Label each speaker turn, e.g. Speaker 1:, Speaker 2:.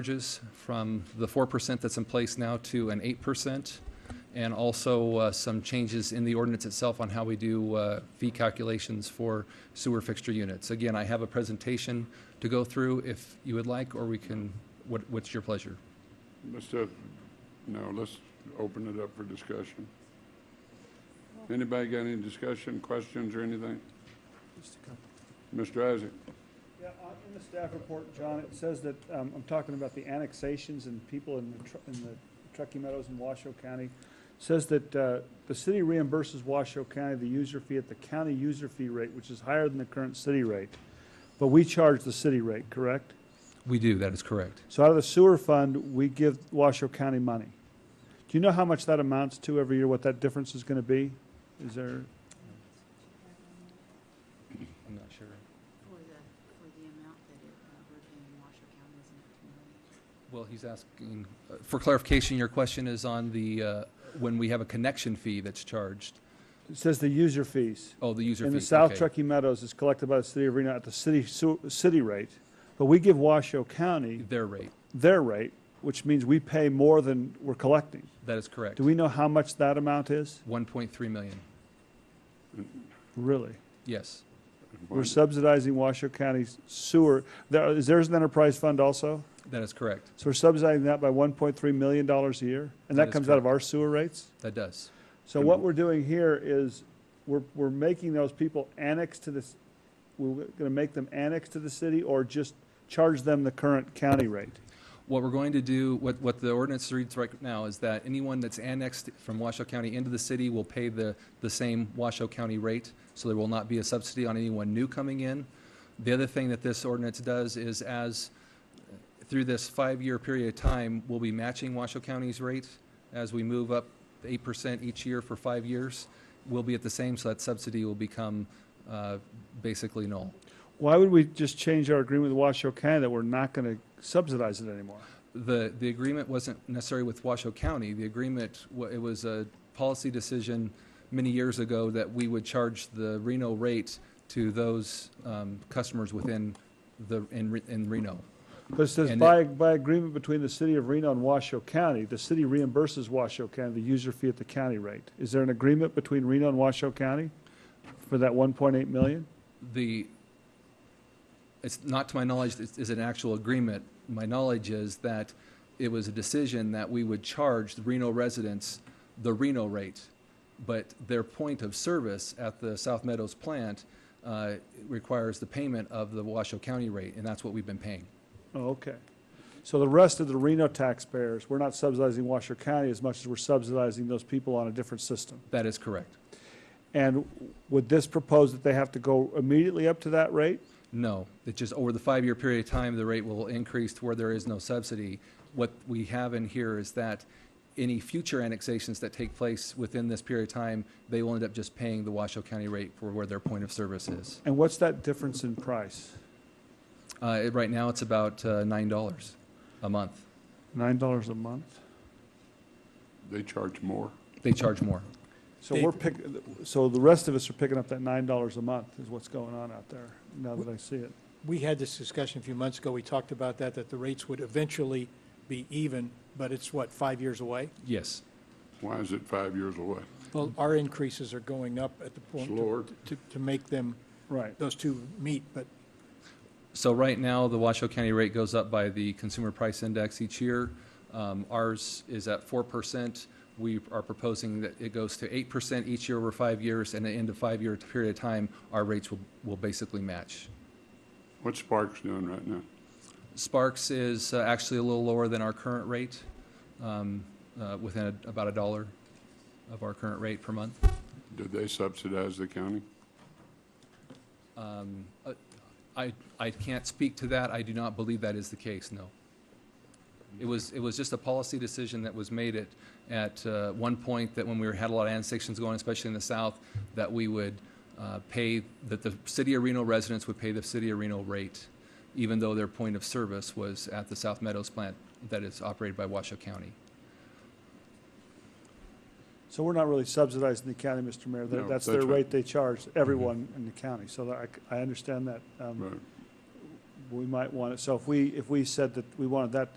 Speaker 1: charges from the 4% that's in place now to an 8%, and also uh, some changes in the ordinance itself on how we do uh, fee calculations for sewer fixture units. Again, I have a presentation to go through if you would like, or we can, what- what's your pleasure?
Speaker 2: Let's, uh, no, let's open it up for discussion. Anybody got any discussion, questions, or anything? Mr. Isaac?
Speaker 3: Yeah, uh, in the staff report, John, it says that, um, I'm talking about the annexations and people in the, Tru- in the Truckee Meadows and Washoe County, says that, uh, the city reimburses Washoe County the user fee at the county user fee rate, which is higher than the current city rate. But we charge the city rate, correct?
Speaker 1: We do, that is correct.
Speaker 3: So out of the sewer fund, we give Washoe County money. Do you know how much that amounts to every year, what that difference is gonna be? Is there,
Speaker 1: I'm not sure.
Speaker 4: For the, for the amount that it, uh, we're paying Washoe County, isn't it two million?
Speaker 1: Well, he's asking, uh, for clarification, your question is on the, uh, when we have a connection fee that's charged.
Speaker 3: it says the user fees.
Speaker 1: Oh, the user fee.
Speaker 3: In the South
Speaker 1: okay.
Speaker 3: Truckee Meadows is collected by the city of Reno at the city, su- city rate, but we give Washoe County
Speaker 1: Their rate,
Speaker 3: their rate, which means we pay more than we're collecting.
Speaker 1: that is correct.
Speaker 3: Do we know how much that amount is?
Speaker 1: 1.3 million,
Speaker 3: Really?
Speaker 1: yes.
Speaker 3: We're subsidizing Washoe County's sewer. There, is theirs an enterprise fund also?
Speaker 1: That is correct.
Speaker 3: So we're subsidizing that by one point three million dollars a year? And
Speaker 1: That
Speaker 3: that
Speaker 1: is
Speaker 3: comes out of our sewer rates?
Speaker 1: That does.
Speaker 3: So what we're doing here is, we're, we're making those people annex to this, we're gonna make them annex to the city or just charge them the current county rate?
Speaker 1: What we're going to do, what, what the ordinance reads right now is that anyone that's annexed from Washoe County into the city will pay the, the same Washoe County rate, so there will not be a subsidy on anyone new coming in. The other thing that this ordinance does is as, uh, through this five-year period of time, we'll be matching Washoe County's rate as we move up eight percent each year for five years. We'll be at the same, so that subsidy will become, uh, basically null.
Speaker 3: Why would we just change our agreement with Washoe County that we're not gonna subsidize it anymore?
Speaker 1: The, the agreement wasn't necessarily with Washoe County. The agreement, wa- it was a policy decision many years ago that we would charge the Reno rate to those um, customers within the, in Re- in Reno.
Speaker 3: But it says
Speaker 1: And
Speaker 3: by, by agreement between the city of Reno and Washoe County, the city reimburses Washoe County the user fee at the county rate. Is there an agreement between Reno and Washoe County for that one point eight million?
Speaker 1: The, it's not to my knowledge, is is an actual agreement. My knowledge is that it was a decision that we would charge the Reno residents the Reno rate, but their point of service at the South Meadows plant uh, requires the payment of the Washoe County rate, and that's what we've been paying.
Speaker 3: Oh, okay. So the rest of the Reno taxpayers, we're not subsidizing Washoe County as much as we're subsidizing those people on a different system.
Speaker 1: That is correct.
Speaker 3: And would this propose that they have to go immediately up to that rate?
Speaker 1: No, it's just over the five-year period of time, the rate will increase to where there is no subsidy. What we have in here is that any future annexations that take place within this period of time, they will end up just paying the Washoe County rate for where their point of service is.
Speaker 3: And what's that difference in price?
Speaker 1: Uh, it- right now, it's about uh, nine dollars a month.
Speaker 3: Nine dollars a month?
Speaker 2: They charge more.
Speaker 1: They charge more.
Speaker 3: So we're pick, so the rest of us are picking up that nine dollars a month is what's going on out there, now that I see it.
Speaker 5: We had this discussion a few months ago. We talked about that, that the rates would eventually be even, but it's what, five years away?
Speaker 1: Yes,
Speaker 2: Why is it five years away?
Speaker 5: Well, our increases are going up at the point
Speaker 2: Slower.
Speaker 5: to- to, to make them,
Speaker 3: Right.
Speaker 5: those two meet, but
Speaker 1: So right now, the Washoe County rate goes up by the Consumer Price Index each year. Um, Ours is at four percent. We are proposing that it goes to eight percent each year over five years, and at the end of five-year period of time, our rates will, will basically match.
Speaker 2: What's Sparks doing right now?
Speaker 1: Sparks is uh, actually a little lower than our current rate, um, uh, within a- about a dollar of our current rate per month.
Speaker 2: Did they subsidize the county?
Speaker 1: Um, uh, I, I can't speak to that. I do not believe that is the case, no. It was, it was just a policy decision that was made at, at uh, one point that when we were- had a lot of annexations going, especially in the south, that we would uh, pay, that the city of Reno residents would pay the city of Reno rate, even though their point of service was at the South Meadows plant that is operated by Washoe County.
Speaker 3: So we're not really subsidizing the county, Mr.
Speaker 2: No,
Speaker 3: Mayor. That- That's Mm-hmm.
Speaker 2: that's
Speaker 3: their
Speaker 2: right.
Speaker 3: rate they charge everyone in the county. So that, I c- I, understand that. um,
Speaker 2: Right.
Speaker 3: We might want it, so if we, if we said that we wanted that